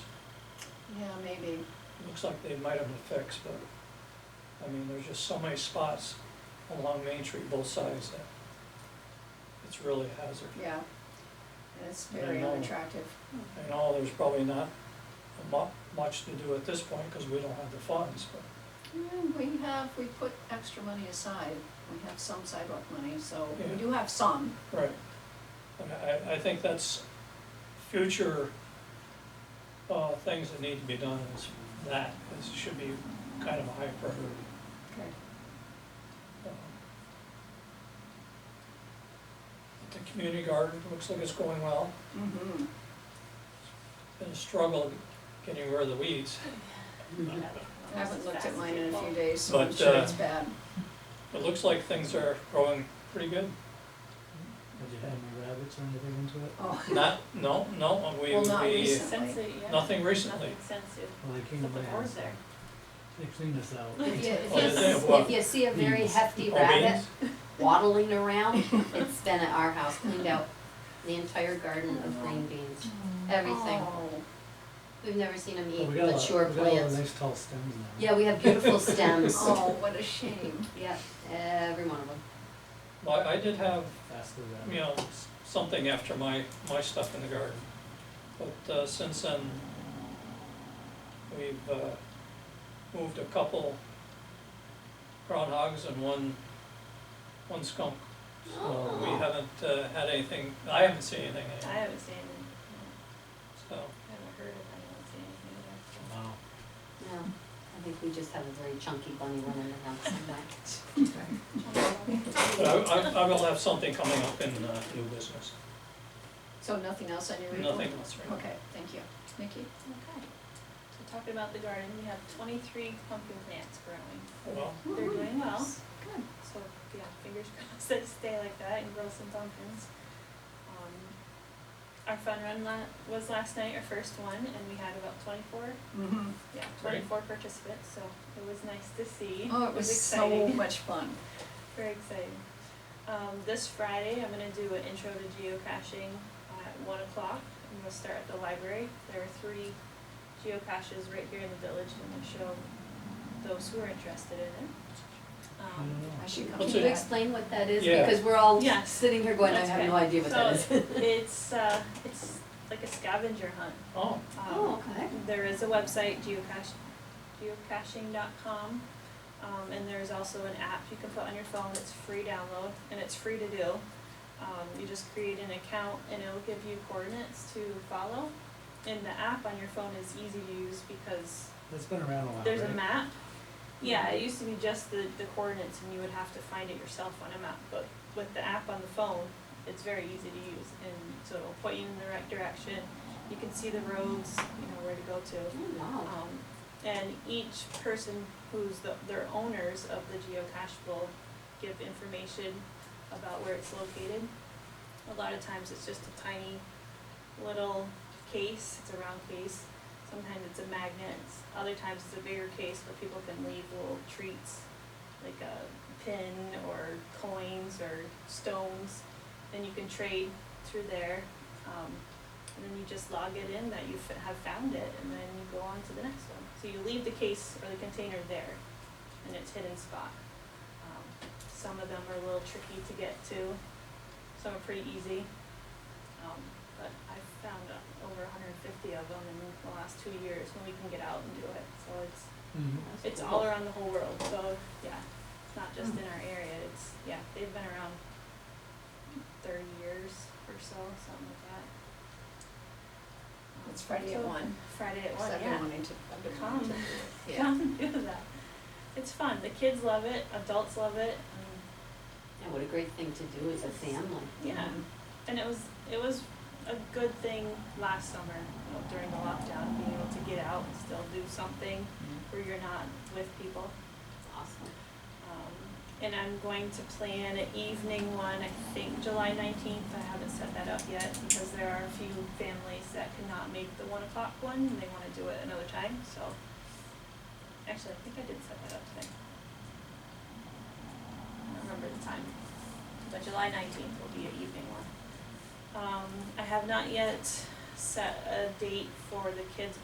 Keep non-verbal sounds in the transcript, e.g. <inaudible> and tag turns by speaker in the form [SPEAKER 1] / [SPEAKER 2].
[SPEAKER 1] Yeah, maybe.
[SPEAKER 2] Looks like they might have a fix, but, I mean, there's just so many spots along Main Street, both sides, that it's really a hazard.
[SPEAKER 1] Yeah, and it's
[SPEAKER 2] I
[SPEAKER 1] very
[SPEAKER 2] know.
[SPEAKER 1] unattractive.
[SPEAKER 2] I know there's probably not mu- much to do at this point, because we don't have the funds, but,
[SPEAKER 1] Yeah, we have, we put extra money aside, we have some sidewalk money, so
[SPEAKER 2] Yeah.
[SPEAKER 1] we do have some,
[SPEAKER 2] right. And I, I think that's future, uh, things that need to be done is that, is, should be kind of a high priority.
[SPEAKER 1] okay.
[SPEAKER 2] Um, The community garden looks like it's going well.
[SPEAKER 1] Mm-hmm,
[SPEAKER 2] been a struggle getting rid of the weeds,
[SPEAKER 1] I haven't looked at mine in a few days, so I'm
[SPEAKER 2] But,
[SPEAKER 1] sure
[SPEAKER 2] uh,
[SPEAKER 1] it's bad.
[SPEAKER 2] it looks like things are growing pretty good.
[SPEAKER 3] Have you had any rabbits or anything into it?
[SPEAKER 1] Oh,
[SPEAKER 2] Not, no, no, we,
[SPEAKER 1] Well, not
[SPEAKER 2] we,
[SPEAKER 1] recent.
[SPEAKER 4] Since it, yeah.
[SPEAKER 2] nothing recently.
[SPEAKER 4] Nothing since it,
[SPEAKER 3] Well, they came to
[SPEAKER 4] put the
[SPEAKER 3] my
[SPEAKER 4] board
[SPEAKER 3] house,
[SPEAKER 4] there.
[SPEAKER 3] they cleaned us out.
[SPEAKER 5] If you,
[SPEAKER 2] Oh,
[SPEAKER 5] if
[SPEAKER 2] is it?
[SPEAKER 5] you,
[SPEAKER 2] What?
[SPEAKER 5] if you see a very
[SPEAKER 3] Beans.
[SPEAKER 5] hefty
[SPEAKER 2] Oh,
[SPEAKER 5] rabbit
[SPEAKER 2] beans?
[SPEAKER 5] waddling
[SPEAKER 3] <laughs>
[SPEAKER 5] around, it's been at our house, cleaned out the entire garden of green beans,
[SPEAKER 4] Mm.
[SPEAKER 5] everything.
[SPEAKER 1] Oh,
[SPEAKER 5] We've never seen them
[SPEAKER 3] But
[SPEAKER 5] eat
[SPEAKER 3] we got a lot-
[SPEAKER 5] mature
[SPEAKER 3] We got a lot of
[SPEAKER 5] plants.
[SPEAKER 3] nice tall stems now.
[SPEAKER 5] Yeah, we have beautiful
[SPEAKER 3] <laughs>
[SPEAKER 5] stems.
[SPEAKER 2] <laughs>
[SPEAKER 1] Oh, what a shame.
[SPEAKER 5] Yeah, every one of them.
[SPEAKER 2] Well, I did have,
[SPEAKER 3] Faster
[SPEAKER 2] you
[SPEAKER 3] than.
[SPEAKER 2] know, s- something after my, my stuff in the garden. But, uh, since then, we've, uh, moved a couple groundhogs and one, one skunk. So
[SPEAKER 1] Oh.
[SPEAKER 2] we haven't, uh, had anything, I haven't seen anything,
[SPEAKER 4] I
[SPEAKER 2] anyway,
[SPEAKER 4] haven't seen it, no.
[SPEAKER 2] so.
[SPEAKER 4] I haven't heard of anyone seeing it either. so.
[SPEAKER 3] Wow.
[SPEAKER 5] No, I think we just have a very chunky bunny running around
[SPEAKER 3] <laughs>
[SPEAKER 5] somewhere.
[SPEAKER 2] But I, I, I will have something coming up in, uh, new business,
[SPEAKER 1] So nothing else on your report?
[SPEAKER 2] nothing else right now.
[SPEAKER 1] Okay, thank you. Nikki?
[SPEAKER 4] Okay, so talking about the garden, we have twenty-three pumpkin plants growing.
[SPEAKER 1] Oh,
[SPEAKER 2] Well,
[SPEAKER 4] They're doing well.
[SPEAKER 1] Good.
[SPEAKER 4] So, yeah, fingers <laughs> crossed that it stay like that and grow some pumpkins. Um, Our fun run la- was last night, our first one, and we had about twenty-four,
[SPEAKER 1] Mm-hmm.
[SPEAKER 4] yeah, twenty-four participants, so it was nice to see.
[SPEAKER 1] Oh, it was so
[SPEAKER 4] exciting.
[SPEAKER 1] much fun.
[SPEAKER 4] Very exciting. Um, this Friday, I'm gonna do an intro to geocaching at one o'clock. I'm gonna start at the library. There are three geocaches right here in the village, and I'm gonna show those who are interested in it.
[SPEAKER 3] I don't
[SPEAKER 4] Um,
[SPEAKER 3] know.
[SPEAKER 1] I should come
[SPEAKER 2] What's
[SPEAKER 5] Can you
[SPEAKER 2] it-
[SPEAKER 1] back.
[SPEAKER 5] explain what that is?
[SPEAKER 2] Yeah.
[SPEAKER 5] Because we're all
[SPEAKER 4] Yes.
[SPEAKER 5] sitting here going, I
[SPEAKER 4] That's
[SPEAKER 5] have no
[SPEAKER 4] okay.
[SPEAKER 5] idea what that is.
[SPEAKER 4] So it's, uh, it's like a scavenger hunt.
[SPEAKER 2] oh,
[SPEAKER 4] Um,
[SPEAKER 5] <laughs> Oh, okay.
[SPEAKER 4] There is a website, geocache, geocaching.com. Um, and there's also an app you can put on your phone, it's free download, and it's free to do. Um, you just create an account and it'll give you coordinates to follow. And the app on your phone is easy to use because
[SPEAKER 3] That's been around a while,
[SPEAKER 4] there's a
[SPEAKER 3] right?
[SPEAKER 4] map. Yeah, it used to be just the, the coordinates and you would have to find it yourself on a map, but with the app on the phone, it's very easy to use and so it'll point you in the right direction. You can see the roads, you know, where to go to.
[SPEAKER 5] Oh, wow.
[SPEAKER 4] Um, and each person who's the, their owners of the geocache will give information about where it's located. A lot of times it's just a tiny little case, it's a round case. Sometimes it's a magnet, s- other times it's a bigger case where people can leave little treats, like a pin or coins or stones. Then you can trade through there. Um, and then you just log it in that you f- have found it, and then you go on to the next one. So you leave the case or the container there, in its hidden spot. Um, some of them are a little tricky to get to, some are pretty easy. Um, but I've found uh, over 150 of them in the last two years when we can get out and do it. So it's
[SPEAKER 3] Mhm.
[SPEAKER 5] That's
[SPEAKER 4] it's
[SPEAKER 5] cool.
[SPEAKER 4] all around the whole world. So yeah, it's not
[SPEAKER 1] Hmm.
[SPEAKER 4] just in our area. It's yeah, they've been around thirty years or so, something like that.
[SPEAKER 1] It's Friday at
[SPEAKER 4] So,
[SPEAKER 1] one,
[SPEAKER 4] Friday at
[SPEAKER 1] so
[SPEAKER 4] one,
[SPEAKER 1] I've been
[SPEAKER 4] <laughs> yeah.
[SPEAKER 1] wanting to, I've been wanting to do it. Yeah.
[SPEAKER 4] Come do that. It's fun. The kids love it. Adults love it. Um,
[SPEAKER 5] Yeah, what a great thing to do as a family.
[SPEAKER 4] yeah,
[SPEAKER 1] Mm-hmm.
[SPEAKER 4] and it was it was a good thing last summer you know, during the lockdown, being able to get out and still do something
[SPEAKER 1] Mm-hmm.
[SPEAKER 4] where you're not with people.
[SPEAKER 5] It's awesome.
[SPEAKER 4] Um, and I'm going to plan an evening one, I think July nineteenth, I haven't set that up yet, because there are a few families that cannot make the one o'clock one, and they wanna do it another time, so. Actually, I think I did set that up today. I don't remember the time, but July nineteenth will be an evening one. Um, I have not yet set a date for the kids'